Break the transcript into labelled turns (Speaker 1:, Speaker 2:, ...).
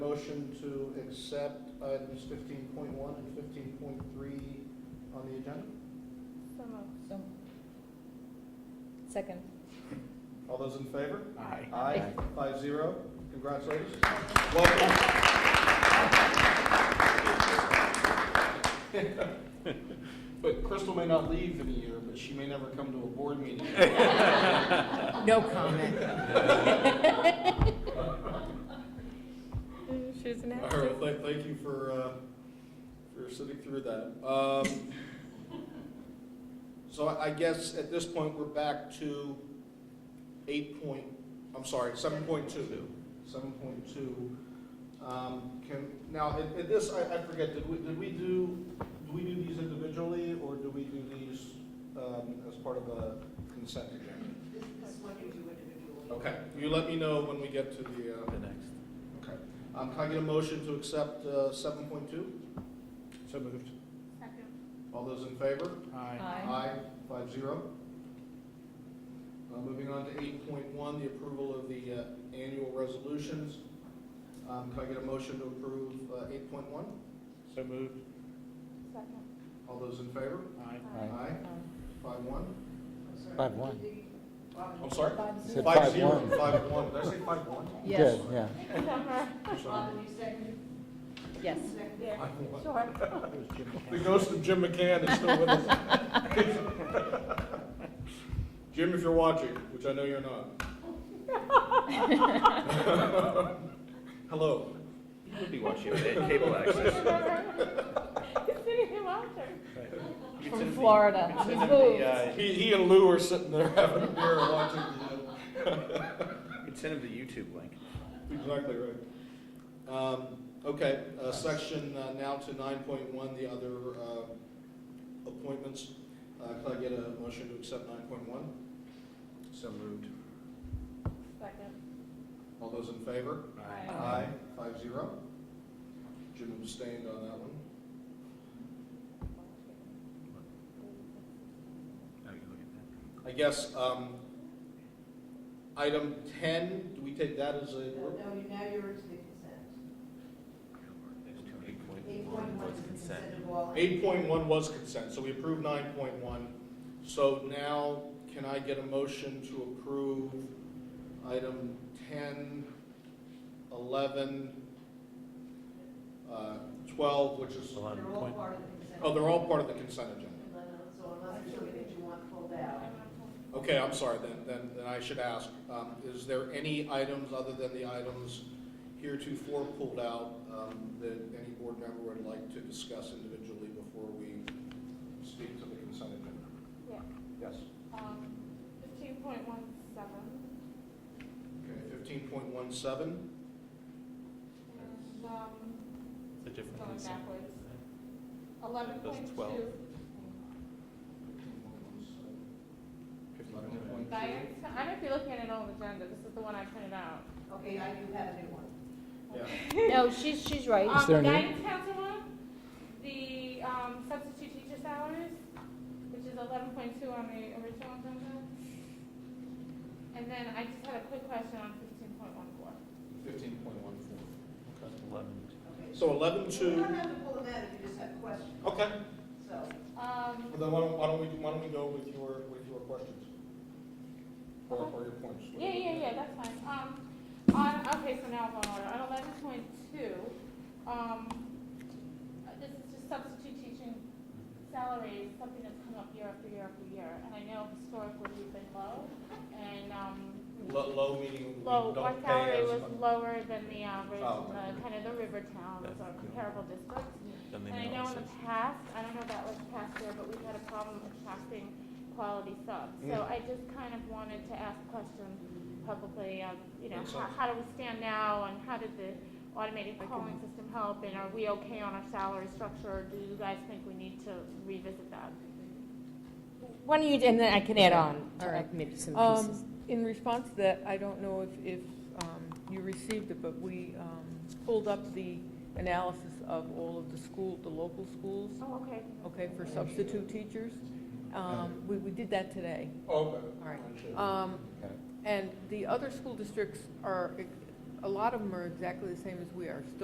Speaker 1: motion to accept items fifteen point one and fifteen point three on the agenda?
Speaker 2: So moved.
Speaker 3: So. Second.
Speaker 1: All those in favor?
Speaker 4: Aye.
Speaker 1: Aye, five zero. Congratulations. Welcome. But Crystal may not leave in a year, but she may never come to a board meeting.
Speaker 3: No comment.
Speaker 2: She's an
Speaker 1: All right, thank, thank you for, uh, for sitting through that. Um, so I I guess at this point, we're back to eight point, I'm sorry, seven point two. Seven point two. Um, can, now, at, at this, I, I forget, did we, did we do, do we do these individually or do we do these, um, as part of a consent agenda?
Speaker 5: This one you do individually.
Speaker 1: Okay, you let me know when we get to the, uh,
Speaker 4: The next.
Speaker 1: Okay. Um, Can I get a motion to accept uh, 7.2?
Speaker 4: So moved.
Speaker 2: Second.
Speaker 1: All those in favor?
Speaker 4: Aye.
Speaker 1: Five zero. Uh, Moving on to 8.1, the approval of the uh, annual resolutions. Um, Can I get a motion to approve uh, 8.1?
Speaker 4: So moved.
Speaker 2: Second.
Speaker 1: All those in favor?
Speaker 4: Aye.
Speaker 1: Aye. Five one?
Speaker 6: Five one.
Speaker 1: I'm sorry?
Speaker 3: Five
Speaker 6: Said
Speaker 3: zero.
Speaker 6: five
Speaker 1: Five zero.
Speaker 6: one.
Speaker 1: Five one. Did I say five one?
Speaker 3: Yes,
Speaker 6: Good, yeah.
Speaker 1: Sorry.
Speaker 5: Robin, you second?
Speaker 3: yes.
Speaker 2: Yeah,
Speaker 1: Five one.
Speaker 2: sure.
Speaker 1: The ghost of Jim McCann is still with us. Jim, if you're watching, which I know you're not. Hello.
Speaker 4: You would be watching with cable access.
Speaker 2: He's sitting here watching.
Speaker 4: It's in
Speaker 3: From
Speaker 4: the-
Speaker 3: Florida.
Speaker 4: it's
Speaker 3: He's
Speaker 4: in the,
Speaker 3: moved.
Speaker 4: uh,
Speaker 1: He, he and Lou are sitting there having a beer watching
Speaker 4: You can send him the YouTube link.
Speaker 1: the. Exactly right. Um, okay, uh, section uh, now to nine point one, the other, uh, appointments. Uh, can I get a motion to accept nine point one?
Speaker 4: So moved.
Speaker 2: Second.
Speaker 1: All those in favor?
Speaker 2: Aye.
Speaker 1: Aye, five zero. Jim abstained on that one.
Speaker 4: Oh, you look at
Speaker 1: I guess, um, item ten, do we take that as a
Speaker 5: No,
Speaker 1: group?
Speaker 5: no, you- now you're into the consent.
Speaker 4: that. There's two
Speaker 5: Eight point one is the consent of all.
Speaker 1: Eight point one was consent, so we approved nine point one. So now, can I get a motion to approve item 10, 11, uh, twelve, which is,
Speaker 5: They're all part of the consent.
Speaker 1: oh, they're all part of the consent agenda?
Speaker 5: And then, So unless there's something that you want pulled out.
Speaker 1: Okay, I'm sorry, then, then, then I should ask, um, is there any items other than the items heretofore pulled out, um, that any board member would like to discuss individually before we speak to the consent agenda?
Speaker 2: Yeah.
Speaker 1: Yes.
Speaker 2: Um, fifteen point one seven.
Speaker 1: Okay, fifteen point one seven,
Speaker 2: And, um,
Speaker 4: It's a different
Speaker 2: going
Speaker 4: consent.
Speaker 2: backwards. Eleven point
Speaker 4: twelve.
Speaker 2: two. Diane, I might be looking at an old agenda. This is the one I printed out.
Speaker 5: Okay, I do have a new one.
Speaker 1: yeah.
Speaker 3: No, she's, she's right.
Speaker 2: Um,
Speaker 6: there
Speaker 2: the
Speaker 6: a name?
Speaker 2: guidance counselor, the, um, substitute teacher salaries, which is eleven point two on the original agenda. And then I just had a quick question on fifteen point one four.
Speaker 1: Fifteen point one four. Okay.
Speaker 4: Eleven.
Speaker 5: Okay.
Speaker 1: So eleven
Speaker 5: You
Speaker 1: two,
Speaker 5: don't have to pull them out if you just have questions,
Speaker 1: okay,
Speaker 5: so.
Speaker 2: Um,
Speaker 1: Well, then why don't, why don't we, why don't we go with your, with your questions? Or, or your points?
Speaker 2: yeah, yeah, yeah, that's fine. Um, on, okay, so now I'm on order. On eleven point two, um, uh, this is just substitute teaching salaries, something that's come up year after year after year. And I know historically we've been low, and, um, we-
Speaker 1: Low, low meaning we
Speaker 2: Well,
Speaker 1: don't
Speaker 2: my
Speaker 1: pay
Speaker 2: salary
Speaker 1: as
Speaker 2: was
Speaker 1: much.
Speaker 2: lower than the average
Speaker 1: Oh,
Speaker 2: in the, kind of the river towns or comparable districts.
Speaker 4: Then they
Speaker 2: And I
Speaker 4: know
Speaker 2: know in
Speaker 4: it's
Speaker 2: the
Speaker 4: a-
Speaker 2: past, I don't know about like past year, but we've had a problem attracting quality subs. So
Speaker 1: Mm.
Speaker 2: I just kind of wanted to ask questions publicly of, you know,
Speaker 1: Makes
Speaker 2: how,
Speaker 1: sense.
Speaker 2: how do we stand now and how did the automated calling system help? And are we okay on our salary structure or do you guys think we need to revisit that?
Speaker 3: Why don't you, and then I can add on
Speaker 7: All
Speaker 3: to
Speaker 7: right.
Speaker 3: maybe some
Speaker 7: Um,
Speaker 3: pieces.
Speaker 7: In response to that, I don't know if, if um, you received it, but we um, pulled up the analysis of all of the school, the local schools,
Speaker 2: Oh, okay.
Speaker 7: okay, for substitute teachers. Um, We, we did that today.
Speaker 1: Okay.
Speaker 7: All right.
Speaker 1: Understood.
Speaker 7: Um,
Speaker 6: Okay.
Speaker 7: And the other school districts are, a lot of them are exactly the same as we are, still